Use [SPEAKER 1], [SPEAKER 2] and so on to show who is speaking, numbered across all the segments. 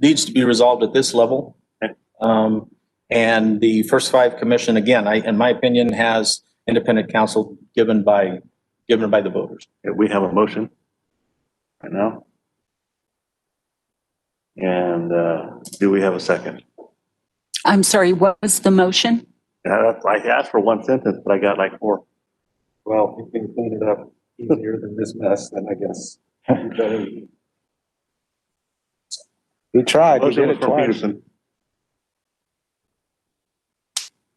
[SPEAKER 1] needs to be resolved at this level. Um, and the first five commission, again, I, in my opinion, has independent counsel given by, given by the voters.
[SPEAKER 2] Yeah, we have a motion right now. And uh, do we have a second?
[SPEAKER 3] I'm sorry, what was the motion?
[SPEAKER 2] Uh, I asked for one sentence, but I got like four.
[SPEAKER 4] Well, if you can clean it up easier than this mess, then I guess. you better-
[SPEAKER 5] He tried, he
[SPEAKER 2] Motion
[SPEAKER 5] did
[SPEAKER 2] was
[SPEAKER 5] it
[SPEAKER 2] from
[SPEAKER 5] twice.
[SPEAKER 2] Peterson.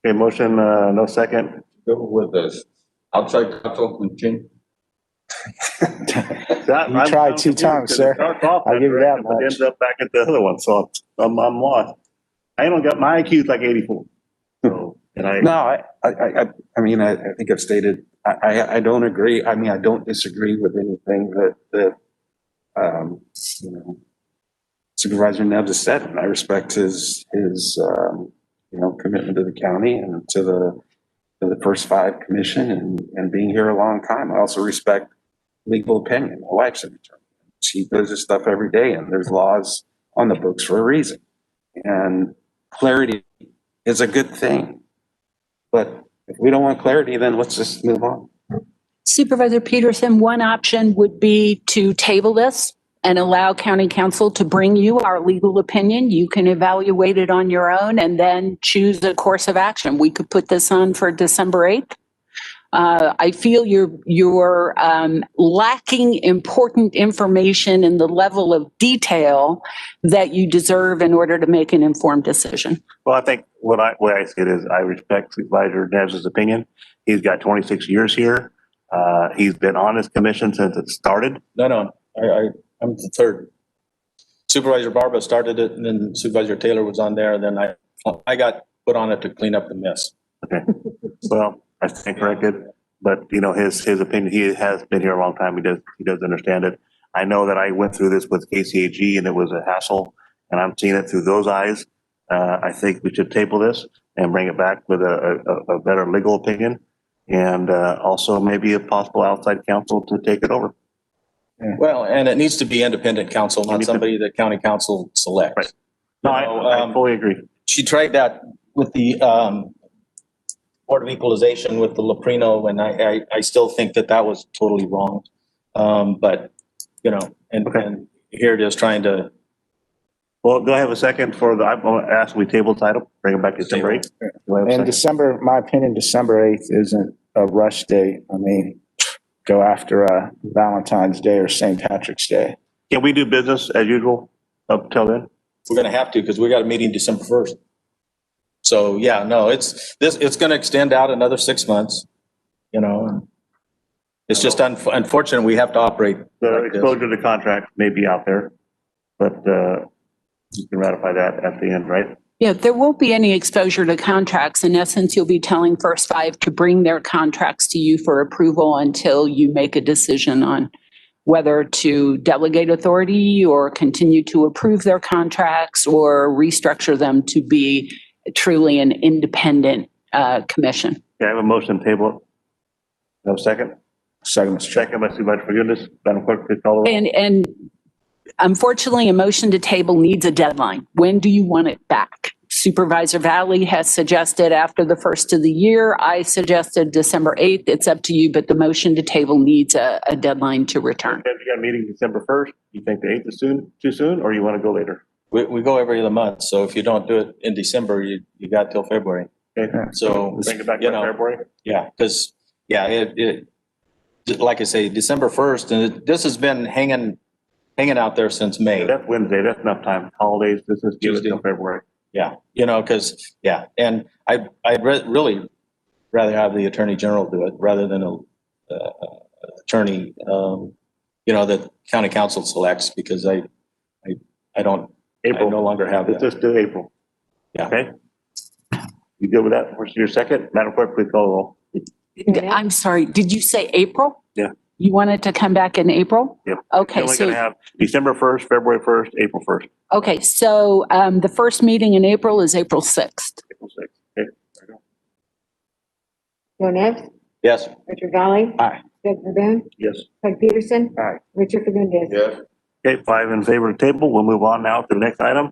[SPEAKER 2] Okay, motion, uh, no second,
[SPEAKER 6] go with this outside counsel and change.
[SPEAKER 2] That-
[SPEAKER 5] You
[SPEAKER 2] I'm-
[SPEAKER 5] tried
[SPEAKER 2] I'm
[SPEAKER 5] two
[SPEAKER 2] confused
[SPEAKER 5] times,
[SPEAKER 2] 'cause it
[SPEAKER 5] sir.
[SPEAKER 2] starts off
[SPEAKER 5] I'll give you
[SPEAKER 2] direction,
[SPEAKER 5] that
[SPEAKER 2] but
[SPEAKER 5] much.
[SPEAKER 2] Ends up back at the other one, so I'm, I'm lost. I don't got, my IQ's like eighty-four. So, and I,
[SPEAKER 5] No, I, I, I, I- I mean, I, I think I've stated, I, I, I don't agree. I mean, I don't disagree with anything that, that, um, you know, Supervisor Neves has said, and I respect his, his, um, you know, commitment to the county and to the, to the first five commission and, and being here a long time. I also respect legal opinion. My wife's an attorney. She does this stuff every day and there's laws on the books for a reason. And clarity is a good thing. But if we don't want clarity, then let's just move on.
[SPEAKER 3] Supervisor Peterson, one option would be to table this and allow county council to bring you our legal opinion. You can evaluate it on your own and then choose a course of action. We could put this on for December 8th. Uh, I feel you're, you're um, lacking important information in the level of detail that you deserve in order to make an informed decision.
[SPEAKER 2] well, I think what I, what I said is I respect Supervisor Neves's opinion. He's got twenty-six years here. Uh, he's been on this commission since it started.
[SPEAKER 1] No, no, I, I, I'm the third. Supervisor Barba started it and then Supervisor Taylor was on there, then I, I got put on it to clean up the mess.
[SPEAKER 2] Well, I stand corrected, but you know, his, his opinion, he has been here a long time. He does, he does understand it. I know that I went through this with KCAG and it was a hassle and I'm seeing it through those eyes. Uh, I think we should table this and bring it back with a, a, a better legal opinion. And, uh, also maybe a possible outside counsel to take it over.
[SPEAKER 1] Well, and it needs to be independent counsel, not somebody that county council
[SPEAKER 2] Right.
[SPEAKER 1] selects.
[SPEAKER 2] No, I, I
[SPEAKER 1] Um,
[SPEAKER 2] fully agree.
[SPEAKER 1] She tried that with the, um, Board of Equalization with the Loprino, and I, I, I still think that that was totally wrong. Um, but, you know, and,
[SPEAKER 2] Okay.
[SPEAKER 1] and here it is trying to.
[SPEAKER 2] Well, do I have a second for the, I'm gonna ask, we table the item, bring it back to December eighth? Do I have a
[SPEAKER 5] And
[SPEAKER 2] second?
[SPEAKER 5] December, my opinion, December eighth isn't a rush day. I mean, go after uh, Valentine's Day or St. Patrick's Day.
[SPEAKER 2] Can we do business as usual up till then?
[SPEAKER 1] We're gonna have to, because we got a meeting December first. So, yeah, no, it's, this, it's gonna extend out another six months, you know. and It's just unf- unfortunate, we have to operate.
[SPEAKER 2] The
[SPEAKER 1] like this.
[SPEAKER 2] exposure to contract may be out there, but uh, you can ratify that at the end, right?
[SPEAKER 3] Yeah, there won't be any exposure to contracts. In essence, you'll be telling First Five to bring their contracts to you for approval until you make a decision on whether to delegate authority or continue to approve their contracts or restructure them to be truly an independent uh, commission.
[SPEAKER 2] Okay, I have a motion table. No second?
[SPEAKER 5] Second, Mr. Chair.
[SPEAKER 2] Second by Supervisor Fagundes. Madam Clerk, please call the roll.
[SPEAKER 3] And, and unfortunately, a motion to table needs a deadline. When do you want it back? Supervisor Valley has suggested after the first of the year. I suggested December 8th. It's up to you, but the motion to table needs a, a deadline to return.
[SPEAKER 2] If you got a meeting December 1st, you think the 8th is soon, too soon, or you want to go later?
[SPEAKER 1] We, we go every other month, so if you don't do it in December, you, you got till February.
[SPEAKER 2] Okay.
[SPEAKER 1] So,
[SPEAKER 2] Bring it back
[SPEAKER 1] you
[SPEAKER 2] to
[SPEAKER 1] know,
[SPEAKER 2] February?
[SPEAKER 1] yeah, because, yeah, it, it, d- like I say, December first, and it- this has been hanging, hanging out there since May.
[SPEAKER 2] That's Wednesday, that's enough time. Holidays, this is due
[SPEAKER 1] Tuesday.
[SPEAKER 2] until February.
[SPEAKER 1] Yeah, you know, because, yeah, and I, I'd re- really rather have the Attorney General do it rather than a, uh, attorney, um, you know, that county council selects because I, I, I don't, I no
[SPEAKER 2] April,
[SPEAKER 1] longer have
[SPEAKER 2] let's
[SPEAKER 1] that.
[SPEAKER 2] just do April.
[SPEAKER 1] Yeah.
[SPEAKER 2] Okay? You good with that? Where's your second? Madam Clerk, please call the roll.
[SPEAKER 3] I'm sorry, did you say April?
[SPEAKER 2] Yeah.
[SPEAKER 3] You wanted to come back in April?
[SPEAKER 2] Yep.
[SPEAKER 3] Okay,
[SPEAKER 2] Only gonna
[SPEAKER 3] so,
[SPEAKER 2] have December 1st, February 1st, April 1st.
[SPEAKER 3] okay, so um, the first meeting in April is April 6th.
[SPEAKER 2] April sixth. Okay, there we go.
[SPEAKER 7] Joe Nevs,
[SPEAKER 1] Yes,
[SPEAKER 7] Richard Valley.
[SPEAKER 5] Aye.
[SPEAKER 7] Doug Verboon,
[SPEAKER 2] Yes.
[SPEAKER 7] Doug Peterson.
[SPEAKER 5] Aye.
[SPEAKER 7] Richard Fagundes.
[SPEAKER 6] Yes.
[SPEAKER 2] Okay, five in favor of the table. We'll move on now to the next item.